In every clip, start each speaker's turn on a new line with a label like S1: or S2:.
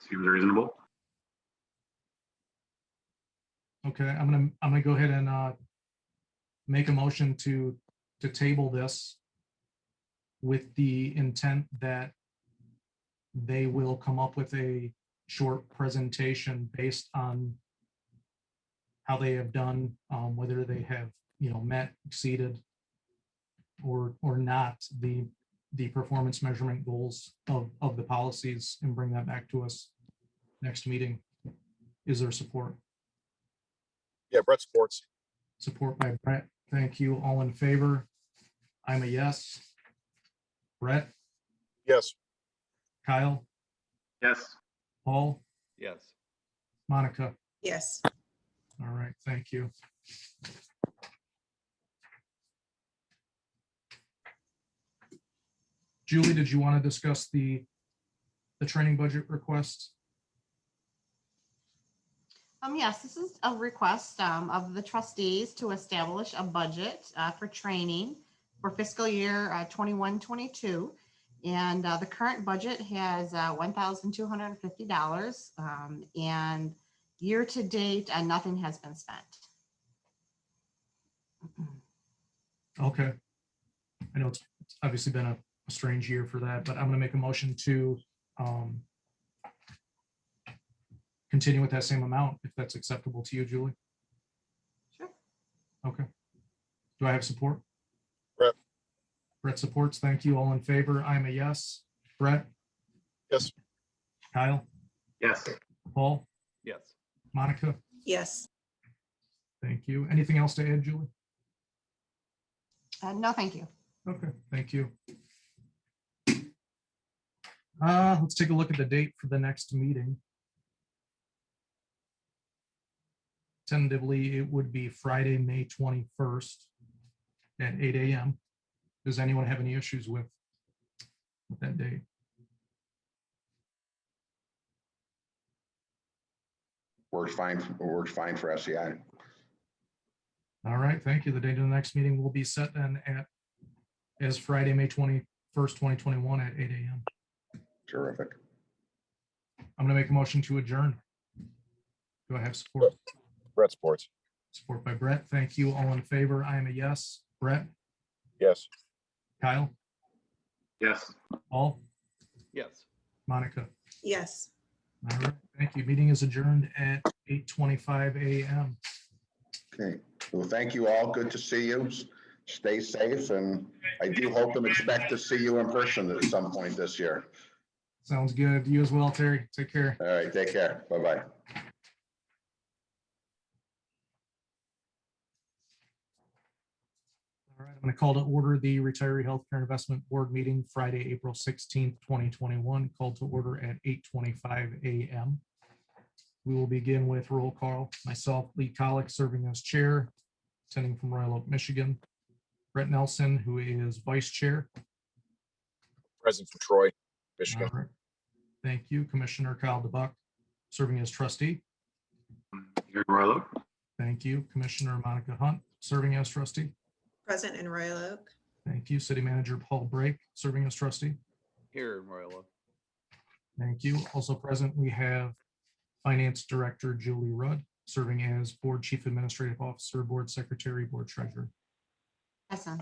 S1: seems reasonable.
S2: Okay, I'm gonna, I'm gonna go ahead and uh, make a motion to, to table this with the intent that they will come up with a short presentation based on how they have done, um, whether they have, you know, met, exceeded or, or not the, the performance measurement goals of, of the policies and bring that back to us next meeting. Is there support?
S3: Yeah, Brett Sports.
S2: Support by Brett. Thank you. All in favor? I'm a yes. Brett,
S3: Yes,
S2: Kyle,
S1: Yes,
S2: Paul,
S4: Yes.
S2: Monica.
S5: Yes,
S2: All right, thank you. Julie, did you want to discuss the, the training budget request?
S6: Um, yes, this is a request, um, of the trustees to establish a budget, uh, for training for fiscal year, uh, 21-22, And, uh, the current budget has, uh, one thousand two hundred and fifty dollars, um, and year-to-date, uh, nothing has been spent.
S2: Okay. I know it's it's obviously been a a strange year for that, but I'm gonna make a motion to um continue with that same amount, if that's acceptable to you, Julie.
S6: Sure.
S2: Okay. Do I have support?
S3: Brett.
S2: Brett supports. Thank you. All in favor? I'm a yes. Brett?
S3: Yes.
S2: Kyle?
S1: yes,
S2: Paul?
S4: Yes.
S2: Monica?
S5: yes,
S2: Thank you. Anything else to add, Julie?
S6: Uh, no, thank you.
S2: Okay, thank you. Uh, let's take a look at the date for the next meeting. Tentatively, it would be Friday, May twenty-first at eight AM. Does anyone have any issues with with that date?
S7: Works fine, works fine for E SEI.
S2: All right, thank you. The date of the next meeting will be set then at as Friday, May twenty-first, twenty twenty-one at eight AM.
S7: Terrific.
S2: I'm gonna make a motion to adjourn. Do I have support?
S3: Brett Sports.
S2: Support by Brett. Thank you. All in favor? I am a yes. Brett,
S3: Yes.
S2: Kyle,
S1: yes.
S2: Paul,
S4: Yes.
S2: Monica.
S5: yes.
S2: All right. Thank you. Meeting is adjourned at eight twenty-five AM.
S7: Okay. Well, thank you all. Good to see you. S- Stay safe and I do hope and expect to see you in person at some point this year.
S2: Sounds good. You as well, Terry. Take care.
S7: All right, take care. Bye-bye.
S2: All right. I'm going to call to order the Retiree Healthcare Investment Board meeting Friday, April sixteenth, twenty twenty-one, called to order at eight twenty-five AM. We will begin with roll call. Myself, Lee Colick, serving as chair, attending from Royal Oak, Michigan. Brett Nelson, who is vice chair.
S3: Present from Troy, Michigan.
S2: All right. Thank you, Commissioner Kyle DeBuck, serving as trustee.
S1: Here in Royal Oak,
S2: Thank you, Commissioner Monica Hunt, serving as trustee.
S5: Present in Royal Oak,
S2: Thank you, City Manager Paul Brake, serving as trustee.
S4: Here in Royal Oak.
S2: Thank you. Also present, we have Finance Director Julie Rudd, serving as Board Chief Administrative Officer, Board Secretary, Board Treasurer.
S6: Yes, ma'am.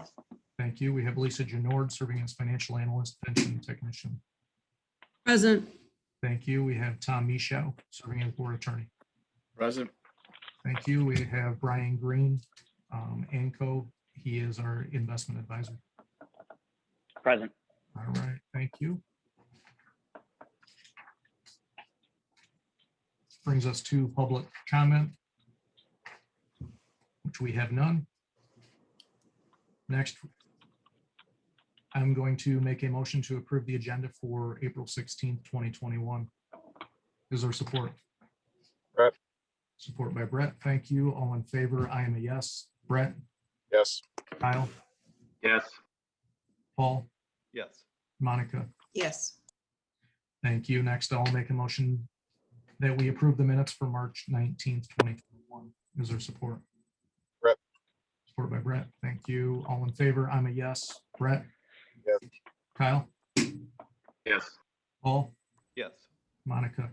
S2: Thank you. We have Lisa Genord, serving as Financial Analyst, Pension Technician.
S8: Present,
S2: Thank you. We have Tom Michaud, serving as Board Attorney.
S4: Present.
S2: Thank you. We have Brian Green, um, Anco. He is our investment advisor.
S9: Present.
S2: All right, thank you. Brings us to public comment, which we have none. Next, I'm going to make a motion to approve the agenda for April sixteenth, twenty twenty-one. Is there support?
S3: Brett.
S2: Support by Brett. Thank you. All in favor? I am a yes. Brett,
S3: Yes.
S2: Kyle,
S1: yes.
S2: Paul,
S4: Yes.
S2: Monica.
S5: yes.
S2: Thank you. Next, I'll make a motion that we approve the minutes for March nineteenth, twenty twenty-one. Is there support?
S3: Brett.
S2: Support by Brett. Thank you. All in favor? I'm a yes. Brett?
S3: Yes.
S2: Kyle?
S1: Yes.
S2: Paul?
S4: Yes.
S2: Monica?